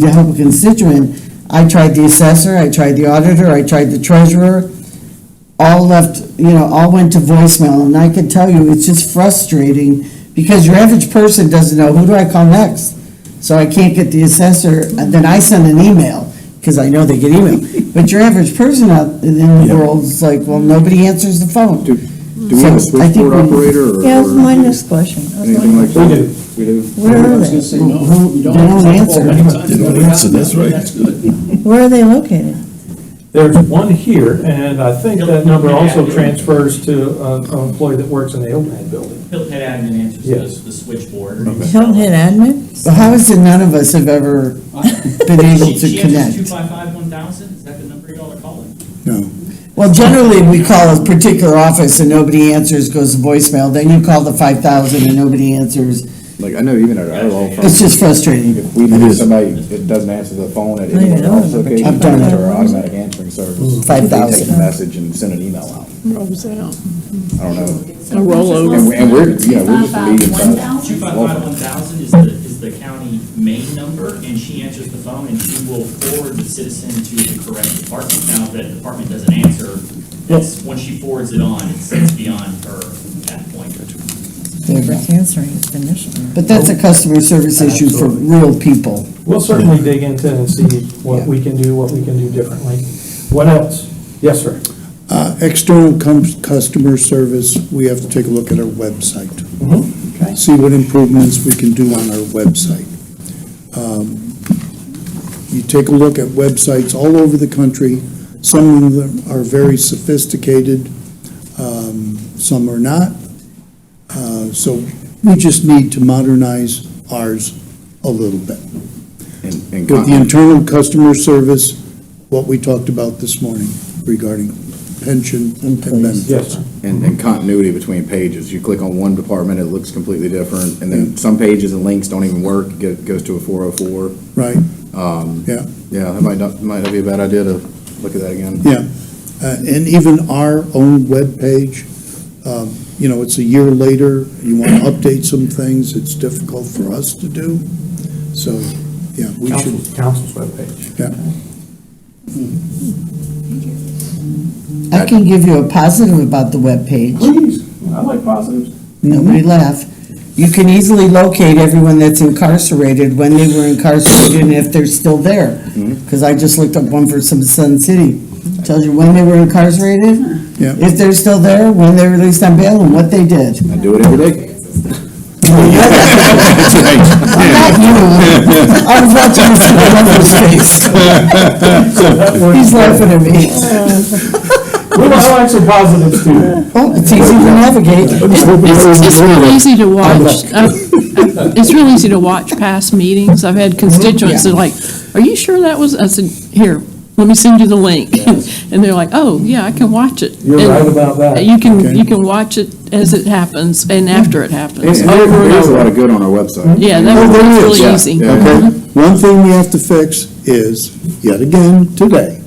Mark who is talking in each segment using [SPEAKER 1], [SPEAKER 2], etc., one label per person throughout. [SPEAKER 1] to help a constituent, I tried the assessor, I tried the auditor, I tried the treasurer, all left, you know, all went to voicemail, and I can tell you, it's just frustrating, because your average person doesn't know, who do I call next? So I can't get the assessor, and then I send an email, because I know they get email, but your average person out in the
[SPEAKER 2] Yeah.
[SPEAKER 1] world is like, well, nobody answers the phone.
[SPEAKER 2] Do Do we have a
[SPEAKER 1] So I think
[SPEAKER 2] switchboard
[SPEAKER 1] we-
[SPEAKER 2] operator or?
[SPEAKER 3] Yeah, that was my
[SPEAKER 2] or
[SPEAKER 3] next question. I was
[SPEAKER 2] Anything like
[SPEAKER 3] wondering,
[SPEAKER 2] that?
[SPEAKER 4] We do.
[SPEAKER 2] We do.
[SPEAKER 3] Where
[SPEAKER 4] I
[SPEAKER 3] are
[SPEAKER 4] was gonna
[SPEAKER 3] they?
[SPEAKER 4] say, no,
[SPEAKER 1] Who-
[SPEAKER 4] you
[SPEAKER 1] they don't
[SPEAKER 4] don't
[SPEAKER 1] answer.
[SPEAKER 4] answer. Many times
[SPEAKER 2] They
[SPEAKER 4] you
[SPEAKER 2] don't
[SPEAKER 4] don't
[SPEAKER 2] answer, that's right.
[SPEAKER 4] That's good.
[SPEAKER 3] Where are they located?
[SPEAKER 4] There's one here, and I think that number also transfers to uh, an employee that works in the Hilton Head building.
[SPEAKER 5] Hilton Head Admin answers
[SPEAKER 4] Yeah.
[SPEAKER 5] this, the switchboard.
[SPEAKER 3] Hilton Head Admin?
[SPEAKER 1] But how is it none of us have ever been able
[SPEAKER 5] She-
[SPEAKER 1] to
[SPEAKER 5] She answers two
[SPEAKER 1] connect?
[SPEAKER 5] five five one thousand, is that the number y'all are calling?
[SPEAKER 2] No.
[SPEAKER 1] Well, generally, we call a particular office and nobody answers, goes to voicemail, then you call the five thousand and nobody answers.
[SPEAKER 2] Like, I know even at our law firm.
[SPEAKER 1] It's just frustrating.
[SPEAKER 2] If we know somebody that doesn't answer the phone at any
[SPEAKER 3] I
[SPEAKER 2] of
[SPEAKER 3] know.
[SPEAKER 2] our office locations,
[SPEAKER 1] I've done it. Mm-hmm.
[SPEAKER 2] to our automatic answering service.
[SPEAKER 1] Five
[SPEAKER 2] They take
[SPEAKER 1] thousand.
[SPEAKER 2] a message and send an email out.
[SPEAKER 6] Rolls out,
[SPEAKER 2] I don't know.
[SPEAKER 6] a rollover.
[SPEAKER 2] And we- and we're, you know, we're just
[SPEAKER 7] About
[SPEAKER 2] leading.
[SPEAKER 7] one thousand?
[SPEAKER 5] Two five five one thousand is the, is the county main number, and she answers the phone, and she will forward the citizen to the correct department. Now, if that department doesn't answer, that's, once she forwards it on, it's it's beyond her at that point.
[SPEAKER 3] Whoever's answering is the initial.
[SPEAKER 1] But that's a customer service issue for real people.
[SPEAKER 4] We'll certainly dig into and see what we can do, what we can do differently. What else? Yes, sir.
[SPEAKER 8] Uh, External cum- customer service, we have to take a look at our website.
[SPEAKER 4] Mhm.
[SPEAKER 8] See what improvements we can do on our website. Um, You take a look at websites all over the country. Some of them are very sophisticated, um, some are not. Uh, So we just need to modernize ours a little bit.
[SPEAKER 2] And- and
[SPEAKER 8] With the
[SPEAKER 2] con-
[SPEAKER 8] internal customer service, what we talked about this morning regarding pension and benefits.
[SPEAKER 4] Yes, sir.
[SPEAKER 2] And, and continuity between pages. You click on one department, it looks completely different, and then some pages and links don't even work, it go- goes to a four oh four.
[SPEAKER 8] Right,
[SPEAKER 2] Um,
[SPEAKER 8] yeah,
[SPEAKER 2] yeah, that might not, might not be a bad idea to look at that again.
[SPEAKER 8] yeah. Uh, And even our own webpage, um, you know, it's a year later, you want to update some things, it's difficult for us to do. So, yeah, we should,
[SPEAKER 4] Council's, council's webpage.
[SPEAKER 8] yeah.
[SPEAKER 1] I can give you a positive about the webpage.
[SPEAKER 4] Please, I like positives.
[SPEAKER 1] Nobody laugh. You can easily locate everyone that's incarcerated, when they were incarcerated, and if they're still there. Because I just looked up one for some Sun City. Tells you when they were incarcerated,
[SPEAKER 8] Yeah.
[SPEAKER 1] if they're still there, when they were released on bail, and what they did.
[SPEAKER 2] I do it every day.
[SPEAKER 1] Not you. I was watching this in my mother's face. He's laughing at me.
[SPEAKER 4] We want to like some positives too.
[SPEAKER 1] Oh, it's easy to navigate.
[SPEAKER 6] It's it's real easy to watch. I've- It's real easy to watch past meetings. I've had constituents that are like, are you sure that was, I said, here, let me send you the link. And they're like, oh, yeah, I can watch it.
[SPEAKER 4] You're
[SPEAKER 6] And
[SPEAKER 4] right about that.
[SPEAKER 6] You can,
[SPEAKER 8] Okay.
[SPEAKER 6] you can watch it as it happens and after it happens,
[SPEAKER 2] There's
[SPEAKER 6] over and
[SPEAKER 2] a lot
[SPEAKER 6] over.
[SPEAKER 2] of good on our website.
[SPEAKER 6] Yeah, that was
[SPEAKER 8] there
[SPEAKER 6] really
[SPEAKER 8] is,
[SPEAKER 2] yeah,
[SPEAKER 6] easy. Mm-hmm.
[SPEAKER 2] yeah.
[SPEAKER 8] Okay, one thing we have to fix is, yet again, today,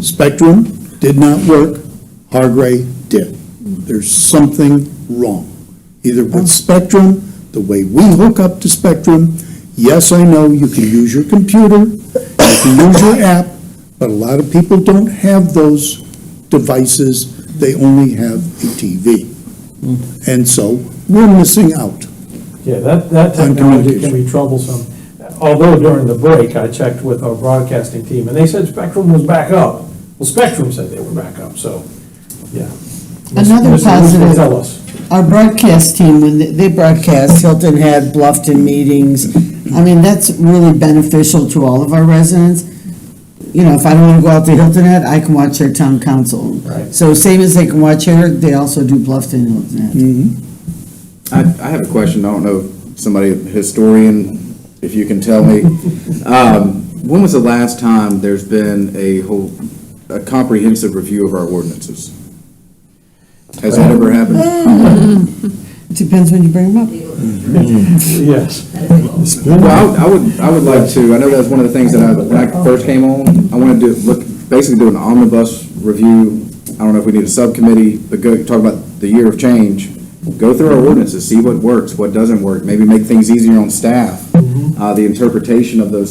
[SPEAKER 8] Spectrum did not work, Hargray did. There's something wrong, either
[SPEAKER 6] Mm-hmm.
[SPEAKER 8] with Spectrum, the way we hook up to Spectrum. Yes, I know, you can use your computer, you can use your app, but a lot of people don't have those devices, they only have a TV.
[SPEAKER 6] Mm-hmm.
[SPEAKER 8] And so, we're missing out.
[SPEAKER 4] Yeah, that, that
[SPEAKER 8] On
[SPEAKER 4] technology can
[SPEAKER 8] communication.
[SPEAKER 4] be troublesome. Although during the break, I checked with our broadcasting team, and they said Spectrum was back up. Well, Spectrum said they were back up, so, yeah.
[SPEAKER 1] Another
[SPEAKER 4] Mr. Ruth will
[SPEAKER 1] positive.
[SPEAKER 4] Tell us.
[SPEAKER 1] Our broadcast team, when they- they broadcast, Hilton had Bluffton meetings. I mean, that's really beneficial to all of our residents. You know, if I don't want to go out to Hilton Head, I can watch their town council.
[SPEAKER 4] Right.
[SPEAKER 1] So same as they can watch here, they also do Bluffton and Hilton Head.
[SPEAKER 6] Mm-hmm.
[SPEAKER 2] I, I have a question, I don't know, if somebody, historian, if you can tell me. Um, When was the last time there's been a whole, a comprehensive review of our ordinances? Has that ever happened?
[SPEAKER 1] It Depends when you bring them up.
[SPEAKER 4] Yes.
[SPEAKER 2] Well, I I would, I would like to, I know that's one of the things that I, when I first came on, I wanted to do, look, basically do an omnibus review. I don't know if we need a subcommittee, but go, talk about the year of change. Go through our ordinances, see what works, what doesn't work, maybe make things easier on staff. Uh, the interpretation of those